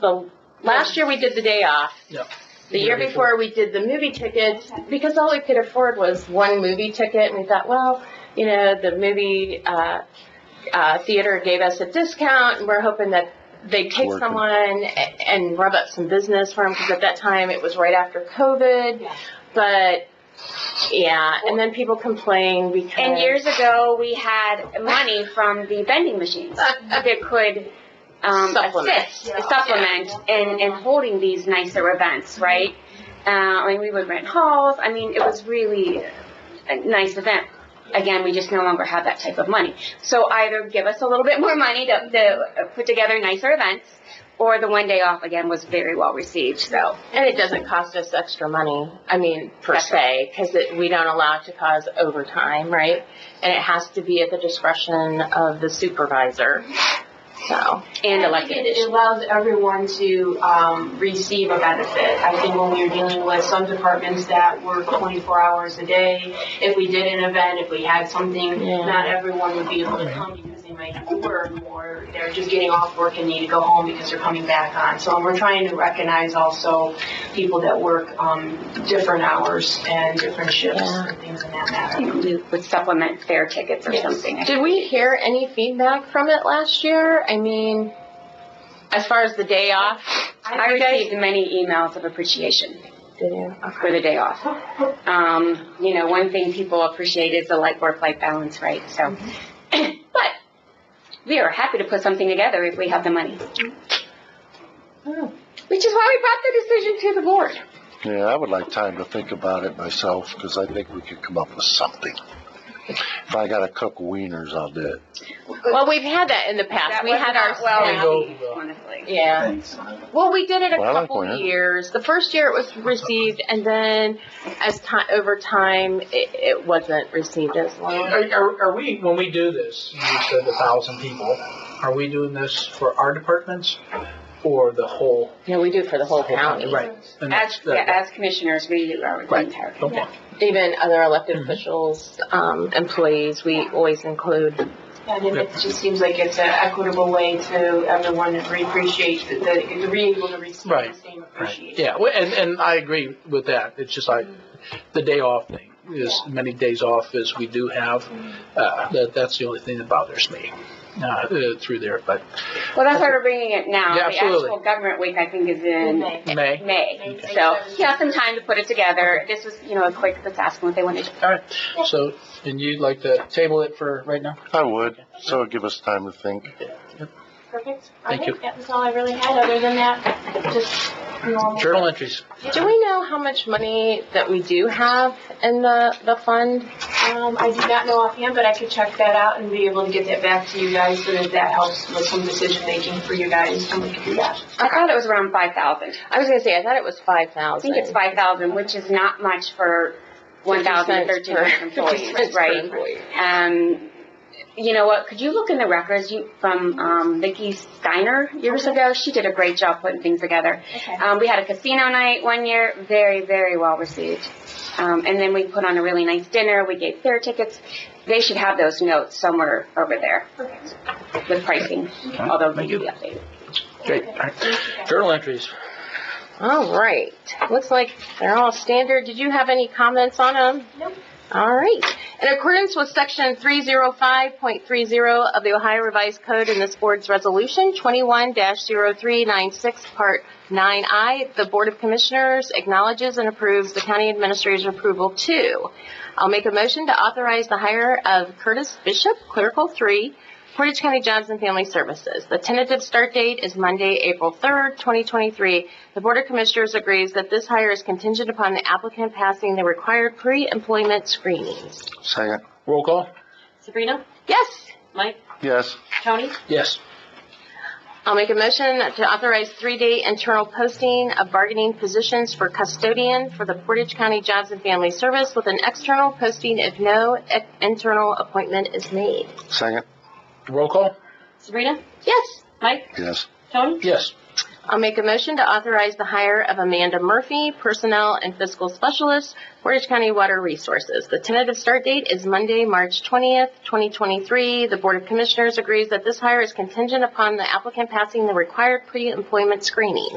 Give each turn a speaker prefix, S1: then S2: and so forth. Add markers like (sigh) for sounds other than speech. S1: the, last year we did the day off.
S2: Yep.
S1: The year
S2: Year
S1: before, we did the movie tickets, because all we could afford was one movie ticket, and we thought, well, you know, the movie, uh, uh, theater gave us a discount, and we're hoping that they'd take
S3: Working.
S1: someone a- and rub up some business for them, because at that time, it was right after COVID,
S4: Yeah.
S1: but, yeah, and then people complained because.
S4: And years ago, we had money from the vending machines that could um,
S1: Supplement.
S4: assist, supplement in, in holding these nicer events,
S5: Mm-hmm.
S4: right? Uh, I mean, we would rent halls. I mean, it was really a nice event. Again, we just no longer have that type of money. So either give us a little bit more money to, to put together nicer events, or the one day off again was very well received. So
S1: And it doesn't cost us extra money, I mean, per
S4: That's
S1: se, because we don't allow it to cause overtime, right? And it has to be at the discretion of the supervisor, so.
S4: and
S5: I think
S4: elected
S5: it- It allows everyone to um, receive a benefit. I think when we were dealing with some departments that work 24 hours a day, if we did an event, if we had something,
S1: Yeah.
S5: not everyone would be able to come because they might have to work or they're just getting off work and need to go home because they're coming back on. So we're trying to recognize also people that work um, different hours and different shifts and things in that matter.
S4: We would supplement fair tickets or
S5: Yes.
S4: something.
S1: Did we hear any feedback from it last year? I mean, as far as the day off?
S4: I received many emails of appreciation
S1: Did you?
S4: for the day off. Um, you know, one thing people appreciate is the light work-life balance, right? So,
S2: Mm-hmm.
S4: (clears throat) but we are happy to put something together if we have the money.
S2: Oh.
S4: Which is why we brought the decision to the board.
S3: Yeah, I would like time to think about it myself, because I think we could come up with something. If I gotta cook wieners, I'll do it.
S1: Well, we've had that in the
S4: That
S1: past. We
S4: was
S1: had
S4: not
S1: our.
S2: well-
S4: well, received,
S2: Yeah.
S4: honestly.
S1: Yeah.
S6: Thanks.
S1: Well, we did it a
S3: Well, I like
S1: couple
S3: Gwinnett.
S1: years. The first year it was received, and then as time over time, it, it wasn't received as long.
S2: Are, are, are we, when we do this, you said a thousand people, are we doing this for our departments or the whole?
S1: No, we do it for the whole county,
S2: Right. And
S4: As,
S2: that's-
S4: yeah,
S2: that-
S4: as commissioners, we are the
S2: Right.
S4: entire.
S2: Okay.
S1: even other elected
S2: Mhm.
S1: officials, um, employees. We always include.
S5: And it- it just seems like it's an equitable way to everyone to re- appreciate, the- the- to be able to receive the
S2: Right.
S5: same
S2: Right.
S5: appreciation.
S2: Yeah, well, and, and I agree with that. It's just like the day off thing, as many days off as we do have,
S4: Mm-hmm.
S2: uh, that, that's the only thing that bothers me, uh, uh, through there, but
S4: Well, that's why we're bringing it now.
S2: Yeah, absolutely. Mm-hmm.
S4: The actual government week, I think, is in
S5: Okay.
S2: May.
S4: May. So, yeah, some time to put it together. This was, you know, a quick, let's ask them what they wanted.
S2: All right, so, and you'd like to table it for right now?
S3: I would, so it'd give us time to think.
S5: Perfect.
S2: Thank
S5: Okay,
S2: you.
S5: That was all I really had, other than that, just normal.
S2: Journal entries.
S1: Do we know how much money that we do have in the the fund?
S5: Um, I do not know offhand, but I could check that out and be able to get that back to you guys, so that that helps with some decision-making for you guys, and we can do that.
S4: I thought it was around five thousand.
S1: I was gonna say I thought it was five
S4: I
S1: thousand.
S4: think it's five thousand, which is not much for one thousand thirteen
S1: (laughs)
S4: employees, right? Um, you know what, could you look in the records, you, from, um, Vicky Steiner years ago? She did a great job putting things together.
S5: Okay.
S4: Um, we had a casino night one year, very, very well received. Um, and then we put on a really nice dinner. We gave fair tickets. They should have those notes somewhere over there with pricing, although they can
S2: Thank you.
S4: be updated.
S2: Great, all right. Journal entries.
S1: All right. Looks like they're all standard. Did you have any comments on them?
S5: Nope.
S1: All right. In accordance with section 305.30 of the Ohio Revised Code and this board's resolution 21-0396, part 9I, the Board of Commissioners acknowledges and approves the county administrator's approval to I'll make a motion to authorize the hire of Curtis Bishop, clerical 3, Portage County Jobs and Family Services. The tentative start date is Monday, April 3rd, 2023. The Board of Commissioners agrees that this hire is contingent upon the applicant passing the required pre-employment screenings.
S3: Second,
S2: Roll call?
S7: Sabrina,
S1: Yes.
S7: Mike,
S3: yes,
S7: Tony,
S2: Yes.
S1: I'll make a motion to authorize three-day internal posting of bargaining positions for custodian for the Portage County Jobs and Family Service with an external posting if no e- internal appointment is made.
S3: second,
S2: Roll call?
S7: Sabrina,
S1: Yes.
S7: Mike,
S3: yes,
S7: Tony,
S2: Yes.
S1: I'll make a motion to authorize the hire of Amanda Murphy, Personnel and Fiscal Specialist, Portage County Water Resources. The tentative start date is Monday, March 20th, 2023. The Board of Commissioners agrees that this hire is contingent upon the applicant passing the required pre-employment screening.